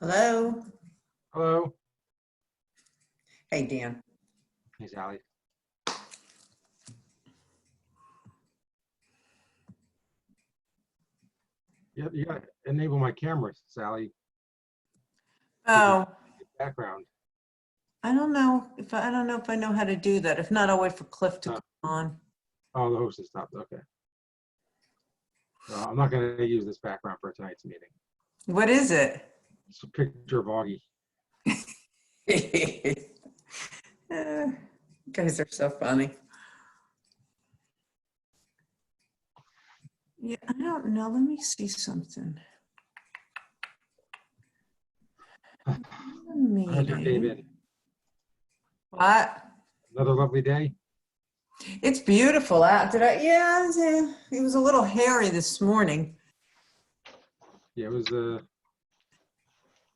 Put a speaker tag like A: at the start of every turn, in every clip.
A: Hello?
B: Hello,
A: Hey, Dan.
B: he's Ali. Yeah, you gotta enable my camera, Sally,
C: Oh,
B: background.
C: I don't know if, I don't know if I know how to do that. If not, I'll wait for Cliff to
B: Uh.
C: come on.
B: Oh, the host has stopped, okay. So I'm not gonna use this background for tonight's meeting.
C: What is it?
B: It's a picture of Augie.
A: Eh, Guys are so funny.
C: Yeah, I don't know. Let me see something.
B: Another day,
C: Meeting.
B: Ben.
C: What?
B: Another lovely day.
C: It's beautiful out. Did I? Yeah, it's, eh, it was a little hairy this morning.
B: Yeah, it was, uh,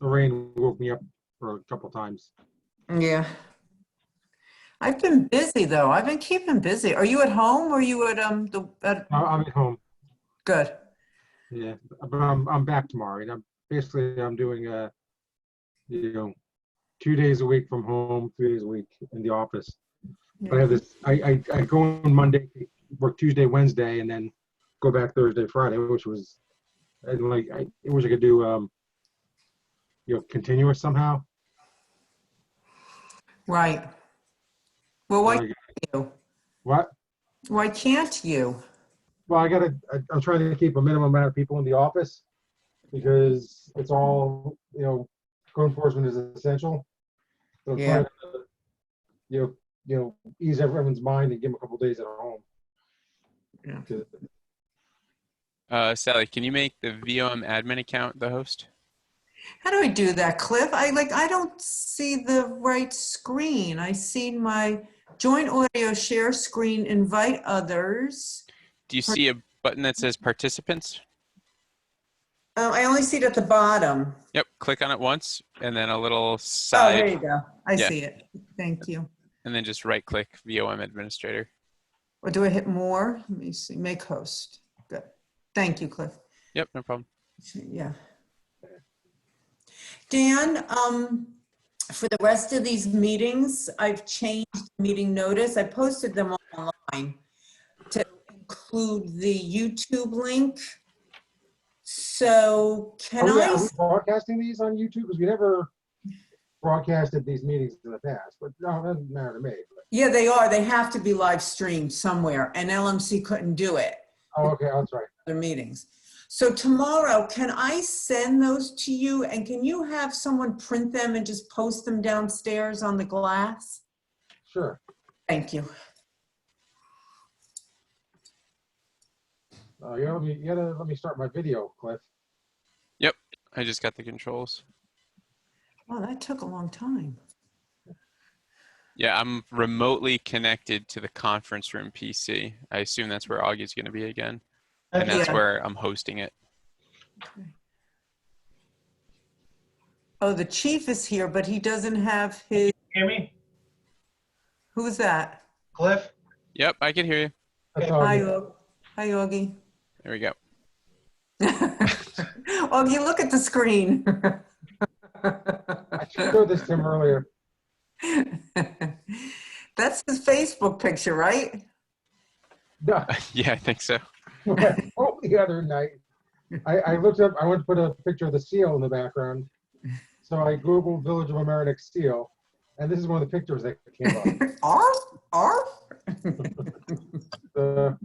B: the rain woke me up for a couple times.
C: Yeah. I've been busy though. I've been keeping busy. Are you at home or you at, um, the, at,
B: I- I'm at home.
C: good.
B: Yeah, but I'm I'm back tomorrow, and I'm basically I'm doing uh, you know, two days a week from home, three days a week in the office. But I have this. I I, I go on Monday, work Tuesday, Wednesday, and then go back Thursday, Friday, which was, and like I, I wish I could do um, you know, continuous somehow.
C: Right. Well, why
B: Like,
C: can't you?
B: What?
C: Why can't you?
B: Well, I gotta. I, I'm trying to keep a minimum amount of people in the office because it's all you know. Code enforcement is essential. So I'm
A: Yeah.
B: trying to, you know, you know, ease everyone's mind and give them a couple days at home.
C: Yeah.
B: 'Cause-
D: Uh, Sally, can you make the VOM admin account the host?
C: How do I do that, Cliff? I like, I don't see the right screen. I see my joint audio share screen, invite others.
D: Do you see a button that says participants?
C: Oh, I only see it at the bottom.
D: Yep, click on it once and then a little
C: Oh, there
D: side
C: you go. I
D: Yeah.
C: see it. Thank you.
D: and then just right click VOM administrator.
C: Or do I hit more? Let me see, make host. Good. Thank you, Cliff.
D: Yep, no problem.
C: Yeah.
A: Dan, um, for the rest of these meetings, I've changed meeting notice. I posted them online to include the YouTube link. So can
B: Oh, Are we-
A: I,
B: are we broadcasting these on YouTube? Because we never broadcasted these meetings in the past, but no, it doesn't matter to me. But-
C: Yeah, they are. They have to be live streamed somewhere and LMC couldn't do it.
B: Oh, okay, that's right.
C: other meetings. So tomorrow, can I send those to you and can you have someone print them and just post them downstairs on the glass?
B: Sure.
C: Thank you.
B: Uh, you gotta, let me- you gotta let me start my video, Cliff.
D: I just got the controls.
C: Wow, that took a long time.
D: Yeah, I'm remotely connected to the conference room PC. I assume that's where Augie's going to be again. And that's
C: Yeah.
D: where I'm hosting it.
C: Oh, the chief is here, but he doesn't have his,
E: Hear me?
C: who's that?
E: Cliff?
D: Yep, I can hear you.
B: That's
E: Oh,
B: all.
C: Hi,
B: good.
C: Og- hi, Augie.
D: There we go.
C: Augie, look at the screen.
B: I showed this to him earlier.
C: That's his Facebook picture, right?
B: No,
D: yeah, I think so.
B: oh, the other night, I, I looked up, I went to put a picture of the seal in the background. So I Googled Village of Amerenik seal, and this is one of the pictures that came up.
C: Arf, arf.
B: The